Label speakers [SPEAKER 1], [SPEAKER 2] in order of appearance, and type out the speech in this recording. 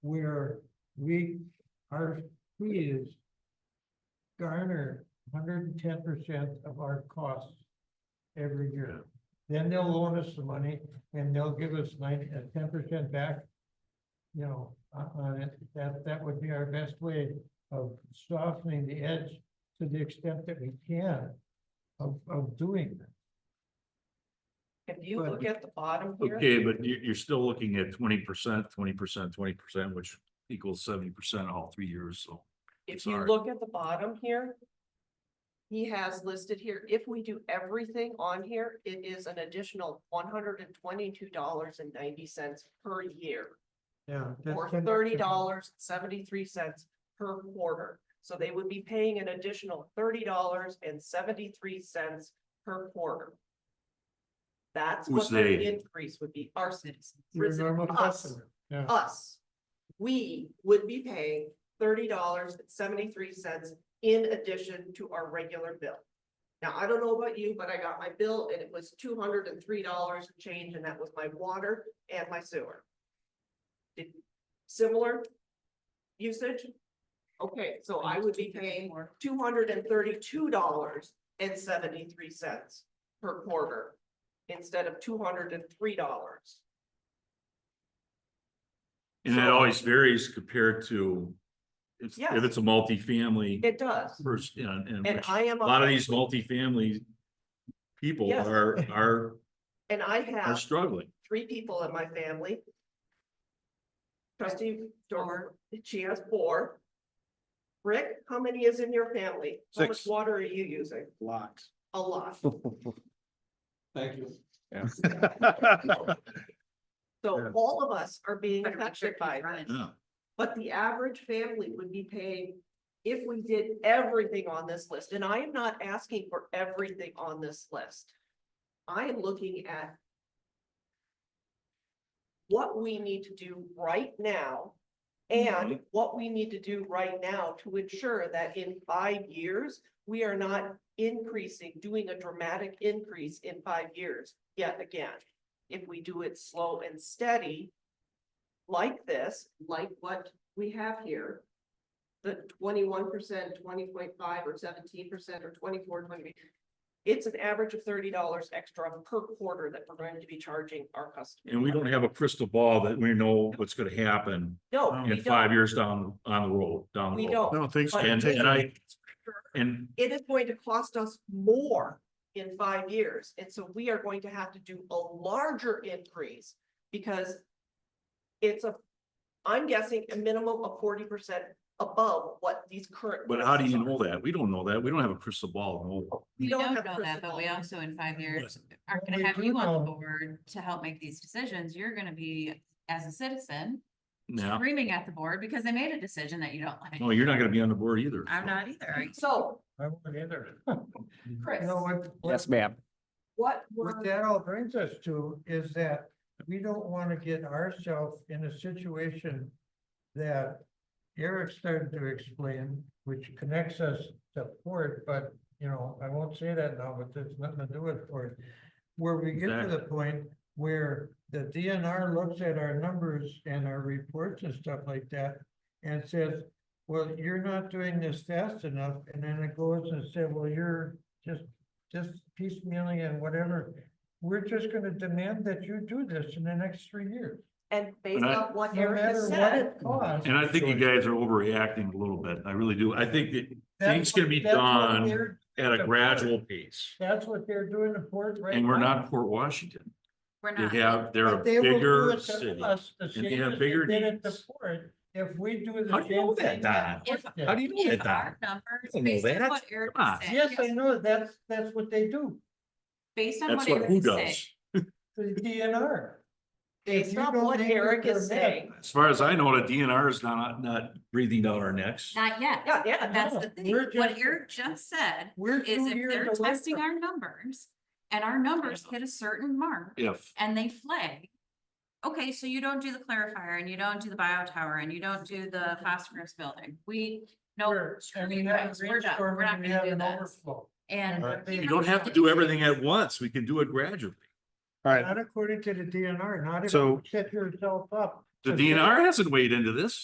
[SPEAKER 1] we, our fee is garner hundred and ten percent of our costs every year. Then they'll loan us the money and they'll give us nine, uh, ten percent back. You know, on, on it, that, that would be our best way of softening the edge to the extent that we can of, of doing that.
[SPEAKER 2] If you
[SPEAKER 1] But-
[SPEAKER 2] look at the bottom here.
[SPEAKER 3] Okay, but you, you're still looking at twenty percent, twenty percent, twenty percent, which equals seventy percent all three years, so.
[SPEAKER 2] If you
[SPEAKER 3] Sorry.
[SPEAKER 2] look at the bottom here. He has listed here, if we do everything on here, it is an additional one hundred and twenty-two dollars and ninety cents per year.
[SPEAKER 1] Yeah. that's
[SPEAKER 2] Or
[SPEAKER 1] 10%.
[SPEAKER 2] thirty dollars, seventy-three cents per quarter. So they would be paying an additional thirty dollars and seventy-three cents per quarter. That's
[SPEAKER 3] Who's
[SPEAKER 2] what the
[SPEAKER 3] they?
[SPEAKER 2] increase would be, our citizens.
[SPEAKER 1] Your normal
[SPEAKER 2] Us
[SPEAKER 1] customer, yeah.
[SPEAKER 2] us, we would be paying thirty dollars and seventy-three cents in addition to our regular bill. Now, I don't know about you, but I got my bill and it was two hundred and three dollars change, and that was my water and my sewer. Did- Similar usage? Okay, so I would be paying two hundred and thirty-two dollars and seventy-three cents per quarter instead of two hundred and three dollars.
[SPEAKER 3] And it
[SPEAKER 2] So-
[SPEAKER 3] always varies compared to. If,
[SPEAKER 2] Yes.
[SPEAKER 3] if it's a multifamily
[SPEAKER 2] It does.
[SPEAKER 3] first, you know, and
[SPEAKER 2] And
[SPEAKER 3] which
[SPEAKER 2] I am.
[SPEAKER 3] a lot of these multifamily. People
[SPEAKER 2] Yes.
[SPEAKER 3] are, are,
[SPEAKER 2] And I
[SPEAKER 3] are
[SPEAKER 2] have
[SPEAKER 3] struggling.
[SPEAKER 2] three people in my family. Trustee Dormer, she has four. Rick, how many is in your family? How much
[SPEAKER 4] Six.
[SPEAKER 2] water are you using?
[SPEAKER 4] Lots.
[SPEAKER 2] A lot.
[SPEAKER 4] Thank you.
[SPEAKER 2] So
[SPEAKER 4] Yeah.
[SPEAKER 2] all of us are being
[SPEAKER 5] Better be
[SPEAKER 2] affected
[SPEAKER 5] careful
[SPEAKER 2] by
[SPEAKER 5] you run
[SPEAKER 2] that.
[SPEAKER 5] it.
[SPEAKER 3] Yeah,
[SPEAKER 2] But the average family would be paying, if we did everything on this list, and I am not asking for everything on this list. I am looking at what we need to do right now and what we need to do right now to ensure that in five years, we are not increasing, doing a dramatic increase in five years yet again. If we do it slow and steady like this, like what we have here. The twenty-one percent, twenty point five, or seventeen percent, or 24, 20. It's an average of thirty dollars extra per quarter that we're going to be charging our customers.
[SPEAKER 3] and we don't have a crystal ball that we know what's gonna happen
[SPEAKER 2] No, we
[SPEAKER 3] in five
[SPEAKER 2] don't.
[SPEAKER 3] years down, on the road, down the
[SPEAKER 2] We
[SPEAKER 3] road.
[SPEAKER 2] don't.
[SPEAKER 4] No, thanks.
[SPEAKER 2] But-
[SPEAKER 3] And, and I, and
[SPEAKER 2] it is going to cost us more in five years, and so we are going to have to do a larger increase because it's a, I'm guessing a minimum of forty percent above what these current.
[SPEAKER 3] But how do
[SPEAKER 2] prices
[SPEAKER 3] you
[SPEAKER 2] are.
[SPEAKER 3] know that? We don't know that. We don't have a crystal ball. no.
[SPEAKER 2] We
[SPEAKER 5] We
[SPEAKER 2] don't
[SPEAKER 5] don't
[SPEAKER 2] have
[SPEAKER 5] know
[SPEAKER 2] crystal
[SPEAKER 5] that, but we
[SPEAKER 2] ball.
[SPEAKER 5] also in five years aren't
[SPEAKER 1] we
[SPEAKER 5] gonna have
[SPEAKER 1] do
[SPEAKER 5] you on the
[SPEAKER 1] know-
[SPEAKER 5] board to help make these decisions. You're gonna be, as a citizen,
[SPEAKER 3] No,
[SPEAKER 5] screaming at the board because they made a decision that you don't
[SPEAKER 3] no,
[SPEAKER 5] like.
[SPEAKER 3] Oh, you're not gonna be on the board either.
[SPEAKER 5] I'm not either.
[SPEAKER 2] So,
[SPEAKER 1] I won't either.
[SPEAKER 2] Chris,
[SPEAKER 1] You know what? what-
[SPEAKER 4] Yes, ma'am.
[SPEAKER 2] what
[SPEAKER 1] What
[SPEAKER 2] were,
[SPEAKER 1] that all brings us to is that we don't wanna get ourselves in a situation that Eric started to explain, which connects us to Ford, but, you know, I won't say that now, but there's nothing to do with Ford. Where we get to the point where the DNR looks at our numbers and our reports and stuff like that and says, well, you're not doing this fast enough, and then it goes and says, well, you're just just piecemealing and whatever. We're just gonna demand that you do this in the next three years,
[SPEAKER 2] and based
[SPEAKER 3] And I-
[SPEAKER 2] on what
[SPEAKER 1] no
[SPEAKER 2] Eric
[SPEAKER 1] matter
[SPEAKER 2] has
[SPEAKER 1] what
[SPEAKER 2] said,
[SPEAKER 1] it costs.
[SPEAKER 3] And I think you guys are overreacting a little bit. I really do. I think that
[SPEAKER 1] that's
[SPEAKER 3] things
[SPEAKER 1] what-
[SPEAKER 3] can be
[SPEAKER 1] that's what
[SPEAKER 3] done
[SPEAKER 1] they're-
[SPEAKER 3] at a gradual pace.
[SPEAKER 1] That's what they're doing to Fort right now.
[SPEAKER 3] And we're not Port Washington.
[SPEAKER 5] We're
[SPEAKER 3] They
[SPEAKER 5] not.
[SPEAKER 3] have, they're a
[SPEAKER 1] But they will do
[SPEAKER 3] bigger
[SPEAKER 1] it to
[SPEAKER 3] city.
[SPEAKER 1] us the
[SPEAKER 3] they
[SPEAKER 1] same
[SPEAKER 3] have
[SPEAKER 1] as
[SPEAKER 3] bigger
[SPEAKER 1] did it to
[SPEAKER 3] needs.
[SPEAKER 1] Fort, If we do
[SPEAKER 3] How
[SPEAKER 1] the
[SPEAKER 3] do you know
[SPEAKER 1] same
[SPEAKER 3] that,
[SPEAKER 1] thing.
[SPEAKER 3] Don?
[SPEAKER 1] Fort
[SPEAKER 5] If-
[SPEAKER 1] did.
[SPEAKER 3] How do you know
[SPEAKER 5] If
[SPEAKER 3] that?
[SPEAKER 5] our
[SPEAKER 3] Don?
[SPEAKER 5] numbers,
[SPEAKER 3] don't know
[SPEAKER 5] based on
[SPEAKER 3] that.
[SPEAKER 5] what Eric
[SPEAKER 3] Come on.
[SPEAKER 5] said,
[SPEAKER 1] Yes, I
[SPEAKER 5] yes,
[SPEAKER 1] know, that's, that's what they do,
[SPEAKER 5] based on
[SPEAKER 3] That's
[SPEAKER 5] what
[SPEAKER 3] what who
[SPEAKER 5] Eric said,
[SPEAKER 3] does.
[SPEAKER 1] the DNR. If
[SPEAKER 2] based
[SPEAKER 1] you
[SPEAKER 2] on
[SPEAKER 1] don't
[SPEAKER 2] what
[SPEAKER 1] think you're
[SPEAKER 2] Eric is
[SPEAKER 1] gonna
[SPEAKER 2] saying,
[SPEAKER 3] As far as I know, the DNR is not, not breathing down our necks.
[SPEAKER 5] not yet.
[SPEAKER 2] yeah, yeah,
[SPEAKER 5] That's
[SPEAKER 1] no,
[SPEAKER 5] the thing.
[SPEAKER 1] we're
[SPEAKER 5] What
[SPEAKER 1] just-
[SPEAKER 5] Eric just said
[SPEAKER 1] We're
[SPEAKER 5] is
[SPEAKER 1] two
[SPEAKER 5] if
[SPEAKER 1] years
[SPEAKER 5] they're
[SPEAKER 1] away
[SPEAKER 5] testing
[SPEAKER 1] from-
[SPEAKER 5] our numbers and our numbers hit a certain mark,
[SPEAKER 3] If,
[SPEAKER 5] and they flag. Okay, so you don't do the clarifier and you don't do the bio tower and you don't do the phosphorus building. We, no,
[SPEAKER 1] We're-
[SPEAKER 5] screw
[SPEAKER 1] and
[SPEAKER 5] you
[SPEAKER 1] we have
[SPEAKER 5] guys, we're done. We're
[SPEAKER 1] brainstorming,
[SPEAKER 5] not
[SPEAKER 1] we
[SPEAKER 5] gonna
[SPEAKER 1] have
[SPEAKER 5] do
[SPEAKER 1] an
[SPEAKER 5] this.
[SPEAKER 1] overflow.
[SPEAKER 5] and.
[SPEAKER 1] Right.
[SPEAKER 3] you don't have to do everything at once. We can do it gradually.
[SPEAKER 4] All right,
[SPEAKER 1] Not according to the DNR, not if
[SPEAKER 4] So-
[SPEAKER 1] you set yourself up.
[SPEAKER 3] The
[SPEAKER 1] to say-
[SPEAKER 3] DNR hasn't weighed into this.